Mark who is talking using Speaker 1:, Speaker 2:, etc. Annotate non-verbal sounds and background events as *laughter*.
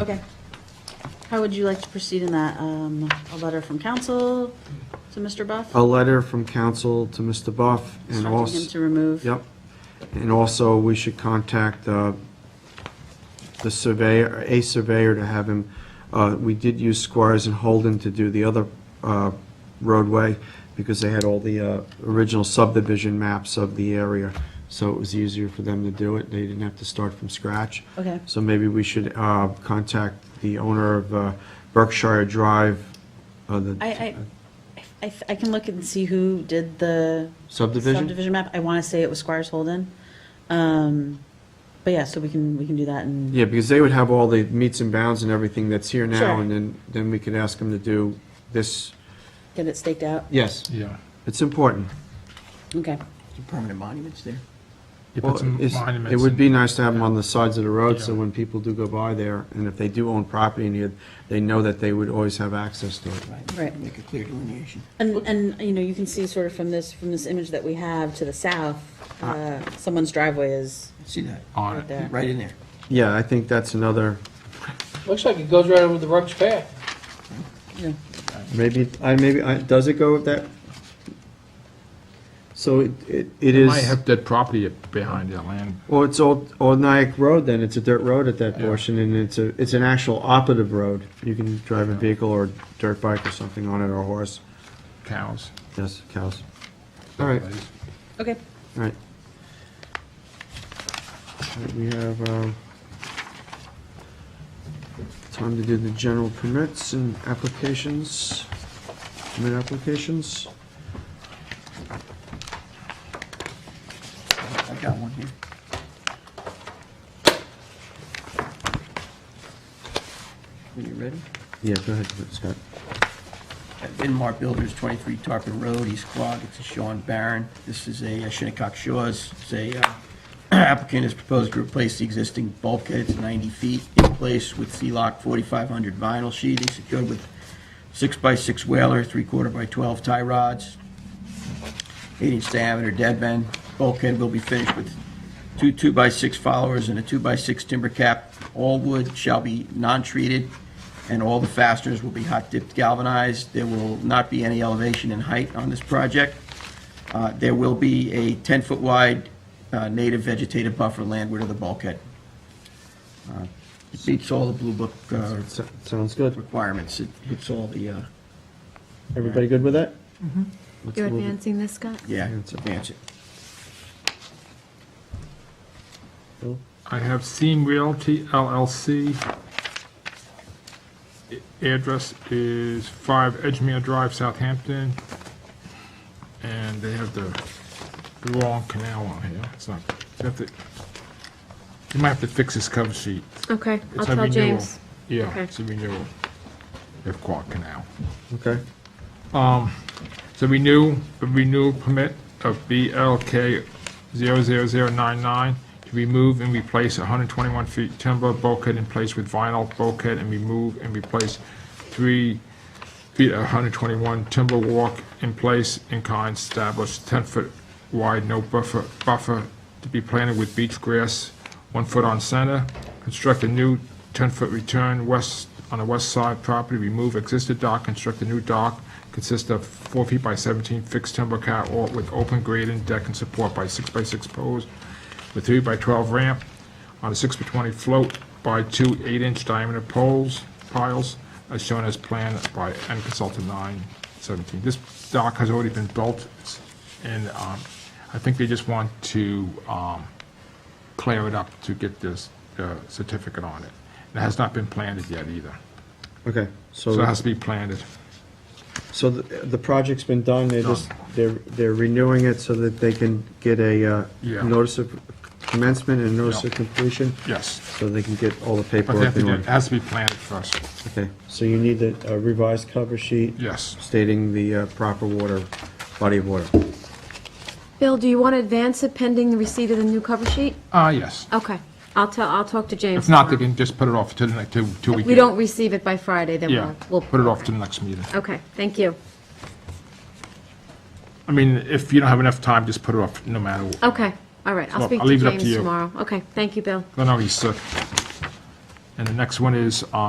Speaker 1: Okay. How would you like to proceed in that? Um, a letter from council to Mr. Buff?
Speaker 2: a letter from council to Mr. Buff Oh, and
Speaker 1: Instructing him to
Speaker 2: also,
Speaker 1: remove?
Speaker 2: yep. And also, we should contact uh, the surveyor, a surveyor to have him, uh, we did use Squires and Holden to do the other uh, roadway because they had all the uh, original subdivision maps of the area. So it was easier for them to do it. They didn't have to start from scratch.
Speaker 1: Okay.
Speaker 2: So maybe we should uh, contact the owner of uh, Berkshire Drive, uh, the
Speaker 1: I, I, I, I can look and see who did the
Speaker 2: subdivision.
Speaker 1: subdivision map. I want to say it was Squires Holden. Um, but yeah, so we can, we can do that and.
Speaker 2: Yeah, because they would have all the meets and bounds and everything that's here now,
Speaker 1: Sure.
Speaker 2: and then, then we could ask them to do this.
Speaker 1: Get it staked out?
Speaker 2: Yes,
Speaker 3: Yeah.
Speaker 2: it's important.
Speaker 1: Okay.
Speaker 4: Permanent monuments there?
Speaker 3: You
Speaker 2: Well,
Speaker 3: put some
Speaker 2: it's-
Speaker 3: monuments.
Speaker 2: It would be
Speaker 3: in-
Speaker 2: nice to have them on the sides of the road, so
Speaker 3: Yeah.
Speaker 2: when people do go by there, and if they do own property in here, they know that they would always have access to it.
Speaker 4: Right.
Speaker 1: Right.
Speaker 4: Make a clear delineation.
Speaker 1: And, and, you know, you can see sort of from this, from this image that we have to the south, uh, someone's driveway is
Speaker 4: See that?
Speaker 3: On
Speaker 1: right
Speaker 3: it.
Speaker 1: there.
Speaker 4: Right in there.
Speaker 2: Yeah, I think that's another,
Speaker 5: Looks like it goes right over the Ruggs path.
Speaker 1: Yeah.
Speaker 2: maybe, I, maybe, I- does it go with that? So it, it it
Speaker 3: They
Speaker 2: is,
Speaker 3: might have that property behind the land.
Speaker 2: well, it's Old, Old Nyack Road then, it's a dirt road at that
Speaker 3: Yeah.
Speaker 2: portion, and it's a, it's an actual operative road. You can drive a vehicle or dirt bike or something on it, or a horse.
Speaker 3: cows.
Speaker 2: Yes, cows. All right.
Speaker 1: Okay.
Speaker 2: All right. All right, We have, um, time to do the general permits and applications, permit applications.
Speaker 4: I got one here. Are you ready?
Speaker 2: Yeah, go ahead, Scott.
Speaker 4: At Inmar Builders, 23 Tarpon Road, East Quogue. It's a Sean Barron. This is a uh, Shinnecock Shaw's. It's a uh, *clears throat* applicant has proposed to replace the existing bulkhead. It's 90 feet in place with C-Lock 4500 vinyl sheathing secured with 6x6 whaler, 3 quarter by 12 tie rods, 8-inch diameter dead bend. Bulkhead will be finished with two 2x6 followers and a 2x6 timber cap. All wood shall be non-treated, and all the fasteners will be hot-dipped galvanized. There will not be any elevation in height on this project. Uh, There will be a 10-foot wide uh, native vegetative buffer landward of the bulkhead. Uh, It meets all the Blue Book uh,
Speaker 2: So- Sounds good.
Speaker 4: requirements. It hits all the, uh,
Speaker 2: Everybody good with that? Let's
Speaker 6: You're
Speaker 2: move it.
Speaker 6: advancing this, Scott?
Speaker 4: yeah,
Speaker 2: Advance it.
Speaker 4: advance it.
Speaker 2: Bill?
Speaker 3: I have Seam Realty LLC. A- Address is 5 Edgemere Drive, Southampton. And they have the the wrong canal on here. It's not, you have to, you might have to fix this cover sheet.
Speaker 6: Okay, I'll
Speaker 3: It's a
Speaker 6: tell
Speaker 3: renewal.
Speaker 6: James.
Speaker 3: Yeah,
Speaker 6: Okay.
Speaker 3: it's a renewal of Quogue Canal.
Speaker 2: Okay.
Speaker 3: So renew, a renewal permit of BLK 00099 to remove and replace 121 feet timber bulkhead in place with vinyl bulkhead and remove and replace three feet of 121 timber walk in place in kind established 10-foot wide no buffer, buffer to be planted with beach grass, one foot on center. Construct a new 10-foot return west, on the west side property, remove existing dock, construct a new dock, consist of four feet by 17 fixed timber catwalk with open grading deck and support by six by six poles with three by 12 ramp on a six by 20 float by two eight-inch diameter poles, piles, as shown as planned by end consultant 917. This dock has already been built, it's- and um, I think they just want to um, clear it up to get this uh, certificate on it. And It has not been planted yet either,
Speaker 2: Okay,
Speaker 3: so it
Speaker 2: so,
Speaker 3: has to be planted.
Speaker 2: so the, the project's been done, they're just, they're, they're renewing it so that they can get a, uh,
Speaker 3: Yeah.
Speaker 2: notice of commencement and notice of
Speaker 3: Yeah.
Speaker 2: completion,
Speaker 3: Yes,
Speaker 2: so they can get all the
Speaker 3: but they
Speaker 2: paperwork
Speaker 3: have to
Speaker 2: in
Speaker 3: do-
Speaker 2: order.
Speaker 3: it has to be planted first,
Speaker 2: Okay, so you need the uh, revised cover sheet
Speaker 3: yes.
Speaker 2: stating the uh, proper water, body of water.
Speaker 6: Bill, do you want to advance it pending the receipt of the new cover sheet?
Speaker 3: Ah, yes.
Speaker 6: Okay, I'll tell, I'll talk to James.
Speaker 3: If not, they
Speaker 6: tomorrow.
Speaker 3: can just put it off to the next, to, to
Speaker 6: If we
Speaker 3: weekend.
Speaker 6: don't receive it by Friday, then
Speaker 3: Yeah,
Speaker 6: we'll,
Speaker 3: we'll
Speaker 6: we'll.
Speaker 3: put it off to the next meeting.
Speaker 6: Okay, thank you.
Speaker 3: I mean, if you don't have enough time, just put it off, no matter. what.
Speaker 6: Okay, all right, I'll
Speaker 3: Well,
Speaker 6: speak
Speaker 3: I'll
Speaker 6: to
Speaker 3: leave it up to
Speaker 6: James
Speaker 3: you.
Speaker 6: tomorrow. Okay, thank you, Bill.
Speaker 3: I know he's sick. And the next one is, uh,